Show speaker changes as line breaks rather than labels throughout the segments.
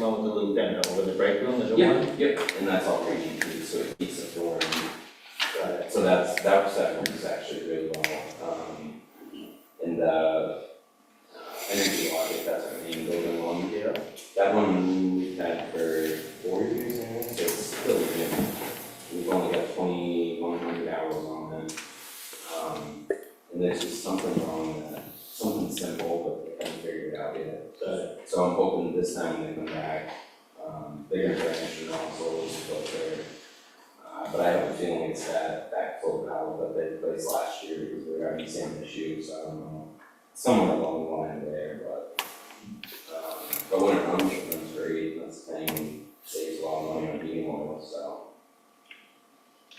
one with the loop in, the one with the break room, there's a one?
Yeah, yep, and that's all reaching through, so it heats up the flooring.
Got it.
So that's, that segment is actually really well, um, and the energy audit, that's our main building one.
Yeah.
That one we've had for four years now, so it's still new. We've only got twenty one hundred hours on it. Um, and there's just something wrong with that, something simple, but they haven't figured it out yet.
Got it.
So I'm hoping this time they come back, um, bigger branch and also filter. Uh, but I have a feeling it's that backflow valve that they replaced last year because we were having the same issue, so I don't know. Somewhere along the line there, but, um, but when it runs, it runs great, and that's the thing, saves a lot of money on heating oil, so.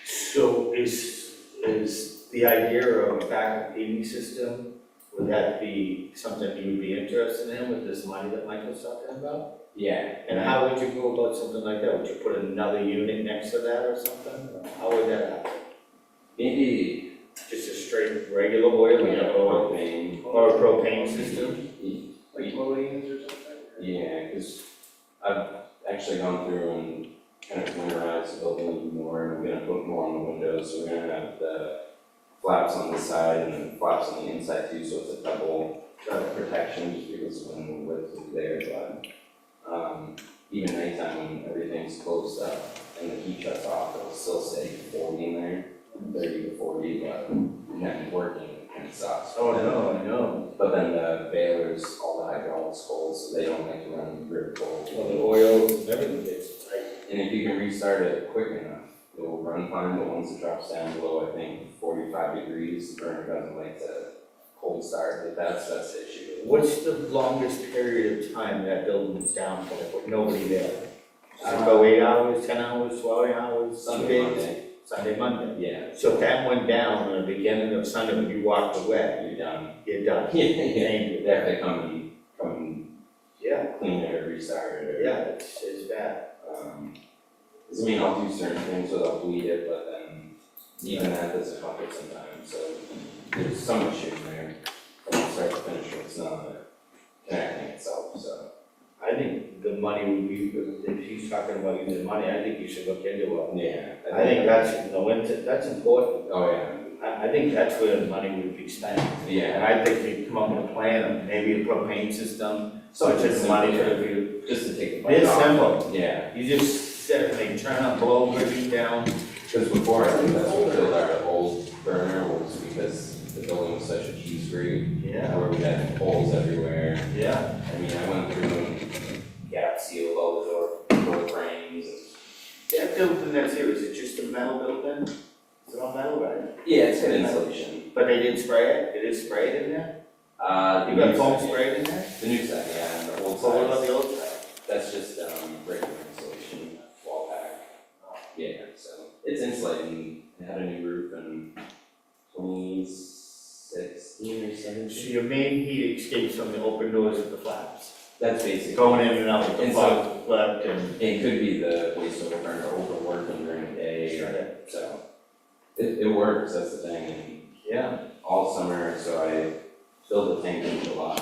So is, is the idea of a backup heating system, would that be something you would be interested in with this money that Michael's talking about?
Yeah.
And how would you go about something like that? Would you put another unit next to that or something? How would that happen?
Maybe.
Just a straight regular oil, you know,
propane.
or, or a propane system?
Like
Williams or something?
Yeah, cause I've actually gone through and kind of winterized the building more, and we're gonna put more on the windows, so we're gonna have the flaps on the side and then flaps on the inside too, so it's a double uh, protection, just because when the wind is there, but um, even nighttime when everything's closed up and the heat shuts off, it'll still stay forty in there, thirty to forty, but not working, it kind of sucks.
Oh, no, I know.
But then the balers, all the hydraulics cold, so they don't like to run real cold.
Well, the oil, everything gets tight.
And if you can restart it quick enough, it will run fine, but once it drops down below, I think forty-five degrees, the burner doesn't like to cold start, but that's, that's the issue.
What's the longest period of time that building's down for, with nobody there? Does it
Uh,
go eight hours, ten hours, twelve hours, Sunday,
Sunday, Monday,
Sunday, Monday?
yeah,
So if that went down on the beginning of Sunday, when you walked away,
you're done.
you're done.
Yeah,
It
yeah.
ain't
They
good.
have to come and, come
Yeah,
and clean it or restart it or.
yeah, it's, it's bad.
Um, 'cause I mean, I'll do certain things without bleed it, but then even that doesn't help it sometimes, so there's some issue in there. From start to finish, it's not connecting itself, so.
I think the money would be, if he's talking about using money, I think you should look into it.
Yeah.
I think that's, no, it's- that's important.
Oh, yeah,
I, I think that's where the money would be spent. And
yeah,
I think we come up with a plan, of maybe a propane system, so it's just
Something
money for
simple,
the view.
just to take the bite
It's
off.
simple,
Yeah,
you just set everything, turn on, blow, everything down,
because before, I think that's what killed our old burner was because the building was such a cheese grate,
yeah,
where we had holes everywhere.
yeah,
I mean, I went through and gap sealed all the door, door frames and
that building that's here, is it just a metal building? Is it all metal, right?
Yeah, it's got insulation.
But they didn't spray it, it is sprayed in there?
Uh,
You
the
got
new
foam
side,
sprayed in there?
yeah. The new side, yeah, and the old
So what about
side,
the old side?
that's just, um, regular insulation, wall pack. Yeah, so it's insulated, and it had a new roof in twenty sixteen or
So
seventeen.
your main heat escapes from the open doors of the flaps,
That's basic.
going in and out with the
And so-
plug, plug and.
It could be the waste of burner overworking during the day, or- so. It, it works, that's the thing, and
Yeah.
all summer, so I filled the tank in July.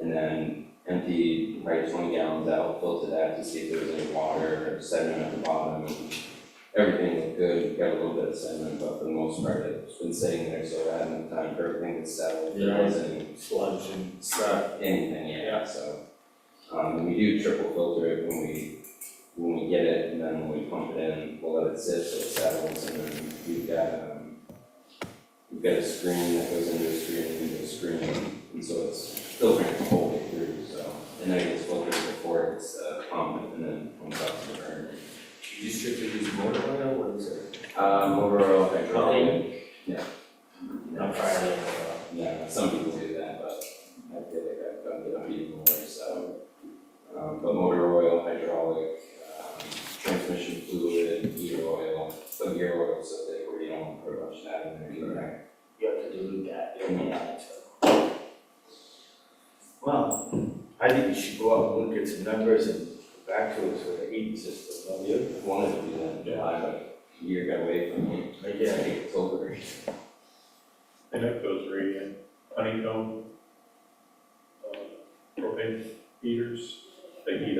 And then emptied probably twenty gallons out, filtered that to see if there was any water or sediment at the bottom. and Everything looked good, got a little bit of sediment, but for the most part, it's been sitting there, so I had enough time for everything to settle. There
Yeah.
wasn't
sludge and stuff.
anything
Yeah.
yet, so. Um, we do triple filter it when we, when we get it, and then when we pump it in, we'll let it sit, so it settles, and then we've got, um, we've got a screen that goes into a screen, into a screen, and so it's filtering the whole way through, so. And then it gets filtered before it's, uh, pumped, and then pumps out to the burner.
Do you strictly use motor oil, what is it?
Um, overall, hydraulic,
Not fire oil.
yeah, some people do that, but I feel like I've done it a few more, so. Um, but motor oil, hydraulic, um, transmission fluid, gear oil, so gear oil, so that where you don't put much of that in there either.
You have to dilute that, you
Mhm.
don't want to. Well, I think you should go out and look at some numbers and come back to us with a heating system, don't you?
I Wanted to do that in July, but a year got away from me, it's
Yeah,
like October.
And that goes right in, honeycomb, uh, propane heaters, they heat